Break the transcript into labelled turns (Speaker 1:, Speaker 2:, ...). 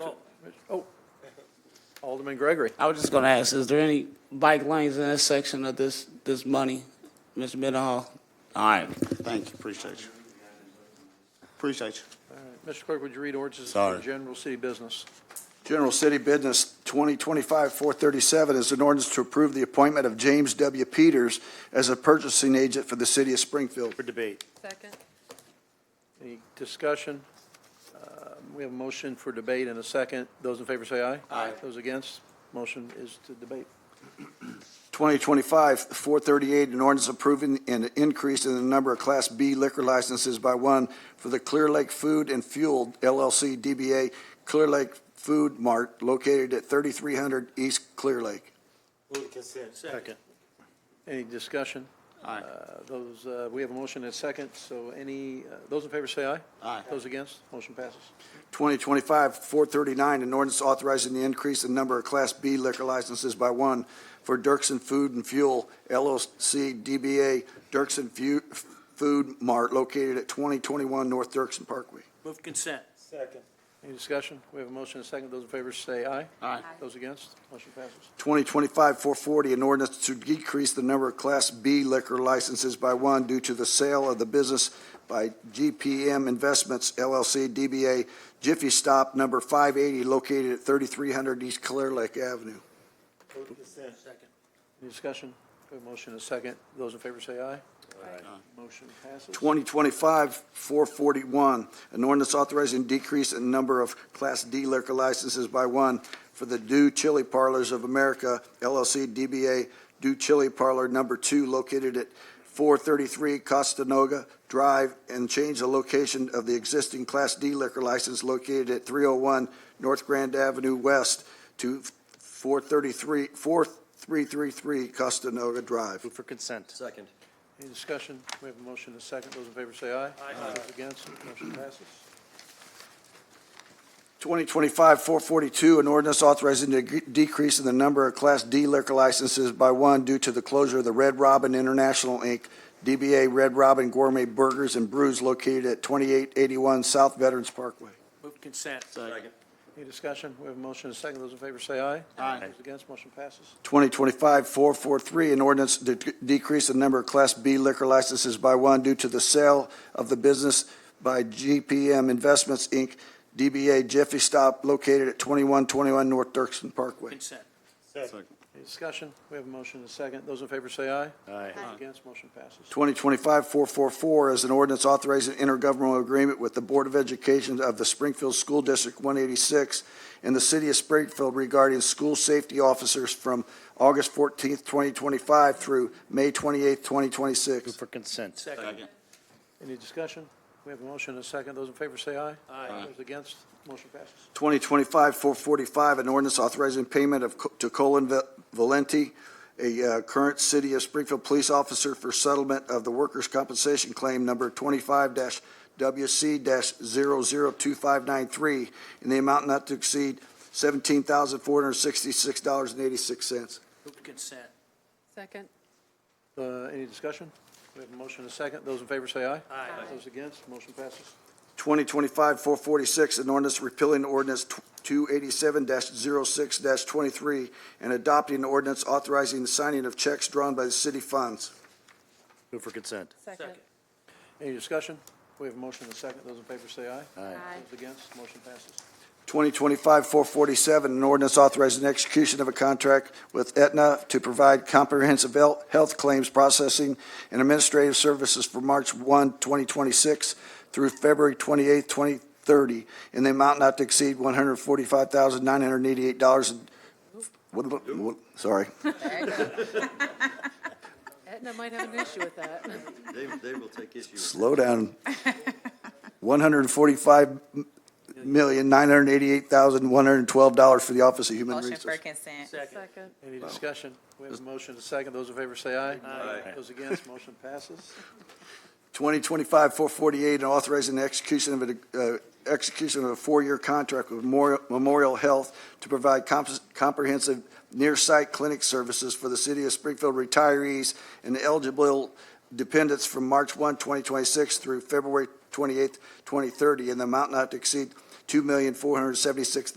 Speaker 1: Oh. Alderman Gregory.
Speaker 2: I was just going to ask, is there any bike lanes in this section of this, this money, Mr. Mendenhall? All right,
Speaker 3: Thank you, appreciate you. Appreciate you.
Speaker 1: Mr. Clerk, would you read ordinances for
Speaker 3: Sorry.
Speaker 1: general city business?
Speaker 4: General City Business 2025-437 is an ordinance to approve the appointment of James W. Peters as a purchasing agent for the city of Springfield.
Speaker 3: For debate.
Speaker 5: Second.
Speaker 1: Any discussion? Uh, We have a motion for debate and a second. Those in favor say aye. Aye. Those against, motion is to debate.
Speaker 4: 2025-438, an ordinance approving an increase in the number of Class B liquor licenses by one for the Clear Lake Food and Fuel LLC DBA Clear Lake Food Mart located at 3300 East Clear Lake.
Speaker 3: Second.
Speaker 1: Any discussion?
Speaker 3: Aye.
Speaker 1: Uh, Those, uh, we have a motion and a second, so any, uh, those in favor say aye.
Speaker 3: Aye.
Speaker 1: Those against, motion passes.
Speaker 4: 2025-439, an ordinance authorizing the increase in number of Class B liquor licenses by one for Dirksen Food and Fuel LLC DBA Dirksen Fu- Food Mart located at 2021 North Dirksen Parkway.
Speaker 6: Move consent. Second.
Speaker 1: Any discussion? We have a motion and a second. Those in favor say aye.
Speaker 3: Aye.
Speaker 1: Those against, motion passes.
Speaker 4: 2025-440, an ordinance to decrease the number of Class B liquor licenses by one due to the sale of the business by GPM Investments LLC DBA Jiffy Stop Number 580 located at 3300 East Clear Lake Avenue.
Speaker 6: Move consent. Second.
Speaker 1: Any discussion? We have a motion and a second. Those in favor say aye.
Speaker 5: Aye.
Speaker 1: Motion passes.
Speaker 4: 2025-441, an ordinance authorizing decrease in number of Class D liquor licenses by one for the Do Chili Parlors of America LLC DBA Do Chili Parlor Number Two located at 433 Costanoga Drive and change the location of the existing Class D liquor license located at 301 North Grand Avenue West to 433, 4333 Costanoga Drive.
Speaker 3: Move for consent.
Speaker 6: Second.
Speaker 1: Any discussion? We have a motion and a second. Those in favor say aye. Aye. Those against, motion passes.
Speaker 4: 2025-442, an ordinance authorizing a g- decrease in the number of Class D liquor licenses by one due to the closure of the Red Robin International, Inc., DBA Red Robin Gourmet Burgers and Brews located at 2881 South Veterans Parkway.
Speaker 6: Move consent.
Speaker 3: Second.
Speaker 1: Any discussion? We have a motion and a second. Those in favor say aye.
Speaker 3: Aye.
Speaker 1: Those against, motion passes.
Speaker 4: 2025-443, an ordinance to d- decrease the number of Class B liquor licenses by one due to the sale of the business by GPM Investments, Inc., DBA Jiffy Stop located at 2121 North Dirksen Parkway.
Speaker 6: Consent.
Speaker 3: Second.
Speaker 1: Any discussion? We have a motion and a second. Those in favor say aye.
Speaker 3: Aye.
Speaker 1: Those against, motion passes.
Speaker 4: 2025-444 is an ordinance authorizing intergovernmental agreement with the Board of Education of the Springfield School District 186 and the City of Springfield regarding school safety officers from August 14th, 2025 through May 28th, 2026.
Speaker 3: for consent.
Speaker 6: Second.
Speaker 1: Any discussion? We have a motion and a second. Those in favor say aye.
Speaker 6: Aye.
Speaker 1: Those against, motion passes.
Speaker 4: 2025-445, an ordinance authorizing payment of, co- to Colin Va- Valenti, a uh, current City of Springfield police officer for settlement of the workers' compensation claim number 25-WC-002593 in the amount not to exceed $17,466.86.
Speaker 6: Move consent.
Speaker 5: Second.
Speaker 1: Uh, Any discussion? We have a motion and a second. Those in favor say aye.
Speaker 6: Aye.
Speaker 1: Those against, motion passes.
Speaker 4: 2025-446, an ordinance repealing ordinance tw- 287-06-23 and adopting an ordinance authorizing the signing of checks drawn by the city funds.
Speaker 3: Move for consent.
Speaker 5: Second.
Speaker 1: Any discussion? We have a motion and a second. Those in favor say aye.
Speaker 3: Aye.
Speaker 1: Those against, motion passes.
Speaker 4: 2025-447, an ordinance authorizing execution of a contract with Aetna to provide comprehensive health health claims processing and administrative services for March 1, 2026 through February 28, 2030, in the amount not to exceed $145,988. and- what- what- what- Sorry.
Speaker 5: Aetna might have an issue with that.
Speaker 7: They, they will take issue.
Speaker 4: Slow down. One hundred forty-five million nine hundred eighty-eight thousand one hundred twelve dollars for the Office of Human
Speaker 8: Motion
Speaker 4: Resources.
Speaker 8: for consent.
Speaker 6: Second.
Speaker 5: Second.
Speaker 1: Any discussion? We have a motion and a second. Those in favor say aye. Aye. Those against, motion passes.
Speaker 4: 2025-448, and authorizing the execution of, a uh, execution of a four-year contract with Memorial- Memorial Health to provide comp- comprehensive near-site clinic services for the city of Springfield retirees and eligible dependents from March 1, 2026 through February 28, 2030, in the amount not to exceed $2,476,000.